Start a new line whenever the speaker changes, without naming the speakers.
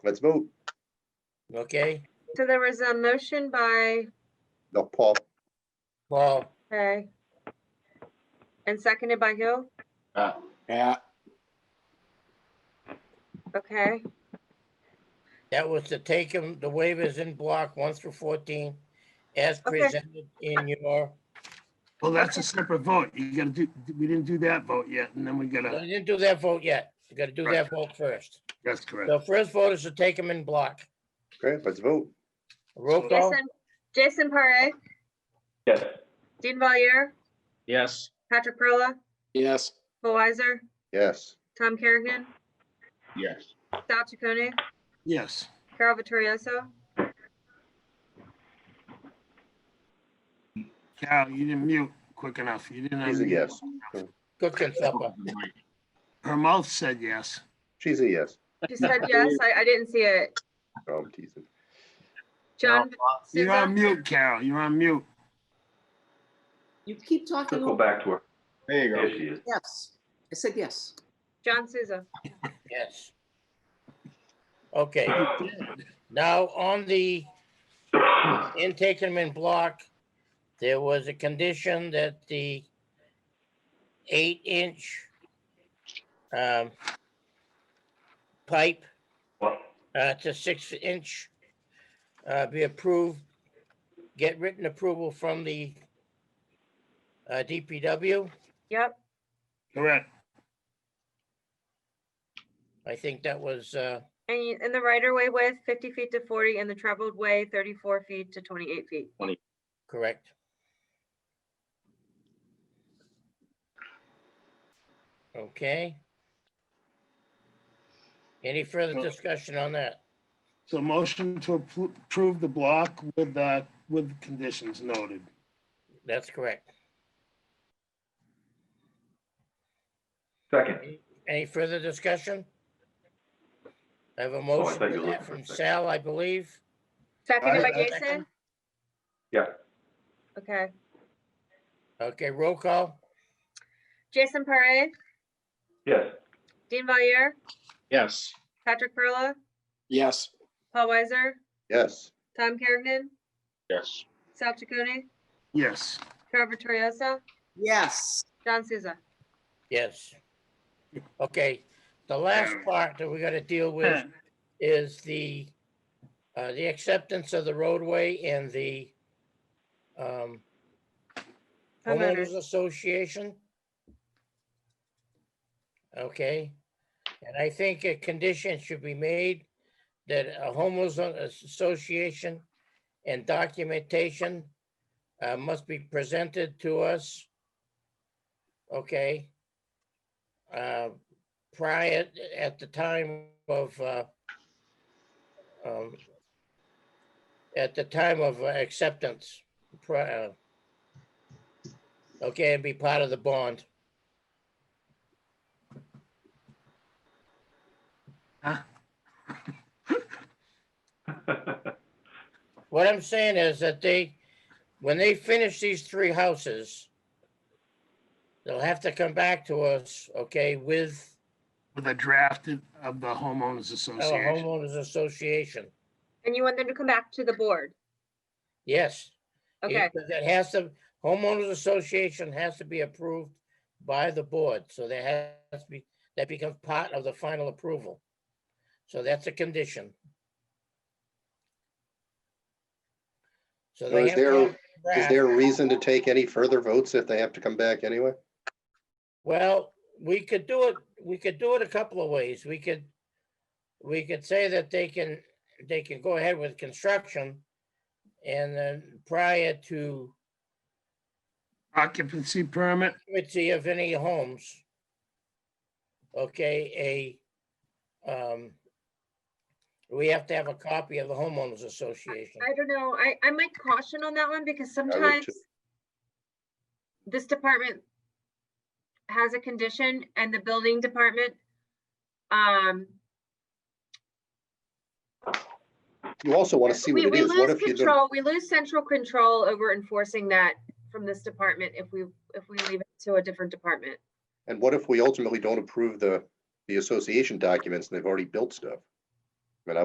Let's vote.
Okay,
So there was a motion by,
No, Paul,
Paul,
okay. And seconded by who?
Yeah,
Okay,
that was to take them, the waivers in block one through fourteen as
Okay.
presented in your,
Well, that's a separate vote. You gotta do, we didn't do that vote yet, and then we
No,
gotta,
you didn't do that vote yet. You gotta do that vote first.
that's correct.
The first vote is to take them in block.
okay, let's vote.
Roll call,
Jason, Jason Parre,
Yes.
Dean Valier,
Yes.
Patrick Perla,
yes,
Bill Weiser,
Yes,
Tom Kerrigan,
Yes.
Sal Chaconi,
Yes,
Carol Vittorioso.
Carol, you didn't mute quick enough. You didn't.
she's a
unmute.
yes.
cooking supper.
Her mouth said yes.
She's a yes.
She said yes, I, I didn't see it.
No, I'm teasing.
John,
You're on
Susan,
mute, Carol. You're on mute.
You keep talking.
Go
over-
back to her.
there you
There
go.
she is.
Yes, I said yes.
John Souza.
Yes. Okay, now on the in taking them in block, there was a condition that the eight inch um, pipe uh, to six inch uh, be approved, get written approval from the uh, DPW.
Yep,
Correct.
I think that was, uh,
and you- in the right of way width, fifty feet to forty, and the traveled way, thirty-four feet to twenty-eight feet.
Correct. Okay. Any further
Well-
discussion on that?
So motion to appro- approve the block with, uh, with conditions noted.
That's correct.
Second.
Any further discussion? I have a
I
motion
thought you
for
were
that
looking for a
from
second.
Sal, I believe.
Seconded by
I- I-
Jason?
Yeah.
Okay,
Okay, roll call.
Jason Parre,
Yes.
Dean Valier,
Yes.
Patrick Perla,
Yes,
Paul Weiser,
Yes,
Tom Kerrigan,
Yes.
Sal Chaconi,
Yes.
Carol Vittorioso,
Yes,
John Souza.
Yes. Okay, the last part that we gotta deal with is the, uh, the acceptance of the roadway and the, um, homeowners
Homeowners.
association. Okay, and I think a condition should be made that a homeowners association and documentation uh, must be presented to us. Okay. Uh, prior, at the time of, uh, um, at the time of uh, acceptance, uh, prior, Okay, and be part of the bond. What I'm saying is that they, when they finish these three houses, they'll have to come back to us, okay, with
With a draft of the homeowners
a
association.
homeowners association.
And you want them to come back to the board?
Yes. it-
Okay,
That has to, homeowners association has to be approved by the board, so there has to be, that becomes part of the final approval. So that's a condition. So
So
they
is
have to
there-
have a
is
draft.
there a reason to take any further votes if they have to come back anyway?
Well, we could do it, we could do it a couple of ways. We could, we could say that they can, they can go ahead with construction. And then prior to
Occupancy permit,
occupancy of any homes. Okay, a, um, we have to have a copy of the homeowners association.
I don't know, I, I might caution on that one because sometimes
too.
this department has a condition and the building department, um,
You also want to see what
we,
it
we
is. What
lose
if you don't?
control, we lose central control over enforcing that from this department if we, if we leave it to a different department.
And what if we ultimately don't approve the, the association documents and they've already built stuff?